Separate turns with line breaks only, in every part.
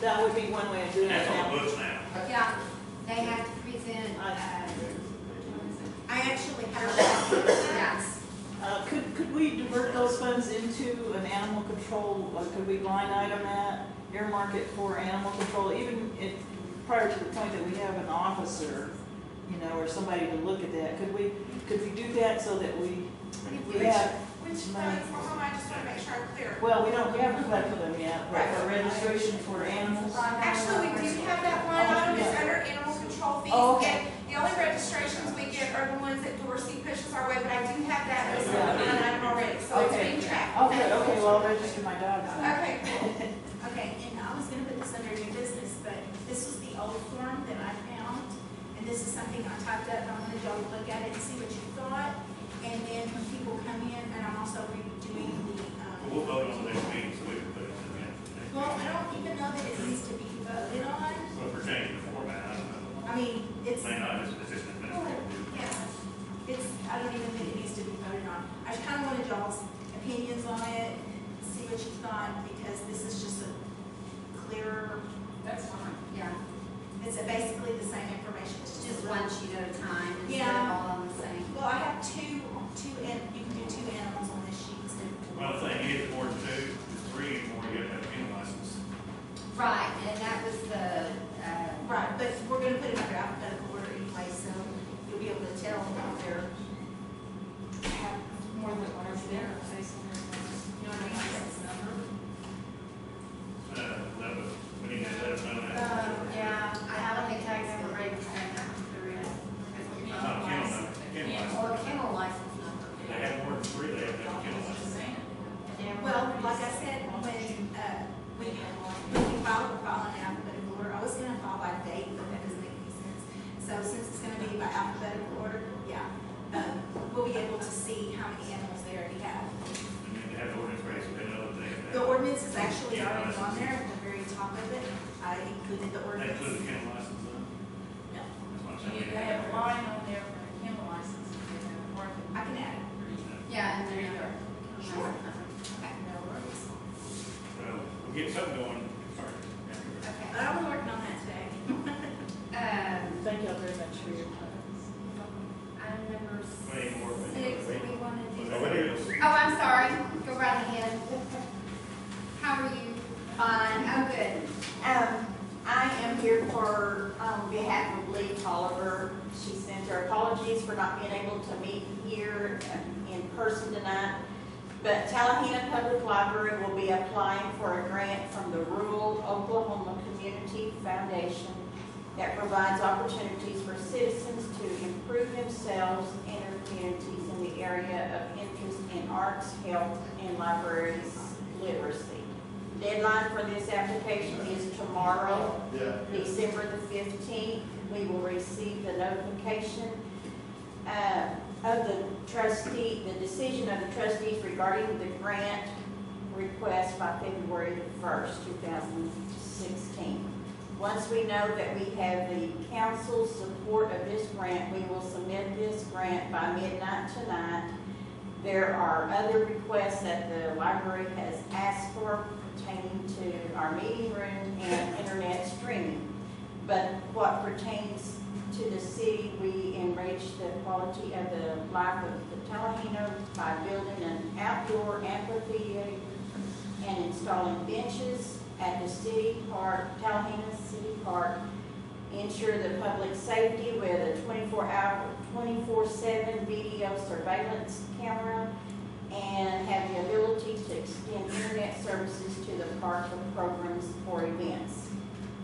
That would be one way of doing
And
it
that's on the
now.
books now.
Yeah, they have to present, uh,
I actually have,
yes.
Uh, could, could we divert those funds into an animal control, uh, could we line item that, earmark it for animal control, even if, prior to the point that we have an officer, you know, or somebody to look at that, could we, could we do that so that we, we have,
which funds, hold on, I just want to make sure I'm clear.
well, we don't have a collector them yet, but for
Right.
registration for animals?
Actually, we do have that line item, it's under animal control fees.
Oh, okay.
And The only registrations we get are the ones that Dorsey pushes our way, but I do have that as a line item already, so it's
Okay.
being tracked.
Okay, okay, well, I'll register my dogs then.
Okay, cool.
Okay, and I was gonna put this under new business, but this was the old form that I found, and this is something I typed up, and I wanted y'all to look at it and see what you thought. And then when people come in, and I'm also redoing the,
Well, We'll
um,
vote on the next meeting, so we can put it in the next meeting.
well, I don't even know that it needs to be voted on,
Well, if we're changing the format, I don't know.
I mean, it's,
May not, it's, it's just an administrative.
yeah, it's, I don't even think it needs to be voted on. I just kinda wanted y'all's opinions on it, see what you thought, because this is just a clearer
That's fine. Yeah,
It's basically the same information, it's
just one sheet at a time instead of
Yeah.
all on the same.
Well, I have two, two, an- you can do two animals on this sheet instead of
Well, the
one.
thing is, Ward two, three, and four, you have to have a kennel license.
Right, and that was the, uh,
Right, but we're gonna put it under alphabetical order anyway, so you'll be able to tell if they're, have more than one or there, you know what I mean?
Uh, that was, we need to let us know that.
Uh,
Yeah, I haven't the tags for ready to send out to the real.
It's not a kennel, number, it's a kennel license.
or kennel license number.
They have Ward three, they have to have a kennel license.
Yeah.
Well, like I said, when, uh, when you, when you file, we're filing in alphabetical order, I was gonna file by date, but that doesn't make any sense. So since it's gonna be by alphabetical order, yeah, um, we'll be able to see how many animals they already have.
And then they have the ordinance raised, they know that they have.
The ordinance is actually
Yeah,
already
that's-
on there, at the very top of it, I included the
They
ordinance.
include the kennel license, huh?
No.
That's what I'm
They
saying.
have a line on there for kennel license, if they have a market.
I can add it,
Yeah, and
There you
then.
go.
Sure.
okay, no worries.
Well, we'll get something going first.
Okay, but I was working on that today.
Um,
Thank y'all very much for your time.
item number
Any more?
six, we wanted to.
Well, there is.
Oh, I'm sorry, go right ahead. How are you? Fine, oh, good.
Um, I am here for, on behalf of Lee Tolliver. She sends her apologies for not being able to meet here um, in person tonight. But Tallahena Public Library will be applying for a grant from the Rural Oklahoma Community Foundation that provides opportunities for citizens to improve themselves and their communities in the area of interest in arts, health, and libraries literacy. Deadline for this application is tomorrow, December the fifteenth. We will receive the notification uh, of the trustee, the decision of the trustees regarding the grant request by February the first, two thousand sixteen. Once we know that we have the council's support of this grant, we will submit this grant by midnight tonight there are other requests that the library has asked for pertaining to our meeting room and internet streaming. But what pertains to the city, we enrich the quality of the life of the Tallahena by building an outdoor amphitheater and installing benches at the city park, Tallahena City Park. Ensure the public safety with a twenty-four hour, twenty-four-seven video surveillance camera and have the ability to extend internet services to the park for programs or events.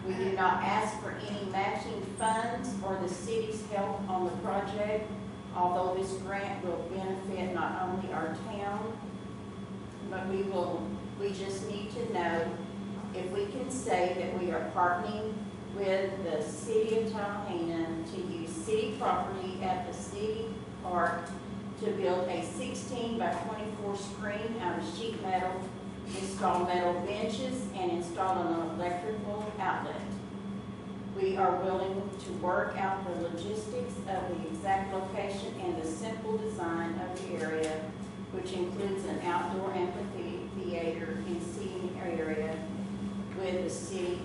We do not ask for any matching funds or the city's help on the project, although this grant will benefit not only our town, but we will, we just need to know if we can say that we are partnering with the city of Tallahassee to use city property at the city park to build a sixteen by twenty-four screen out of sheet metal, install metal benches, and install an electrical outlet. We are willing to work out the logistics of the exact location and the simple design of the area, which includes an outdoor amphitheater and seating area with the city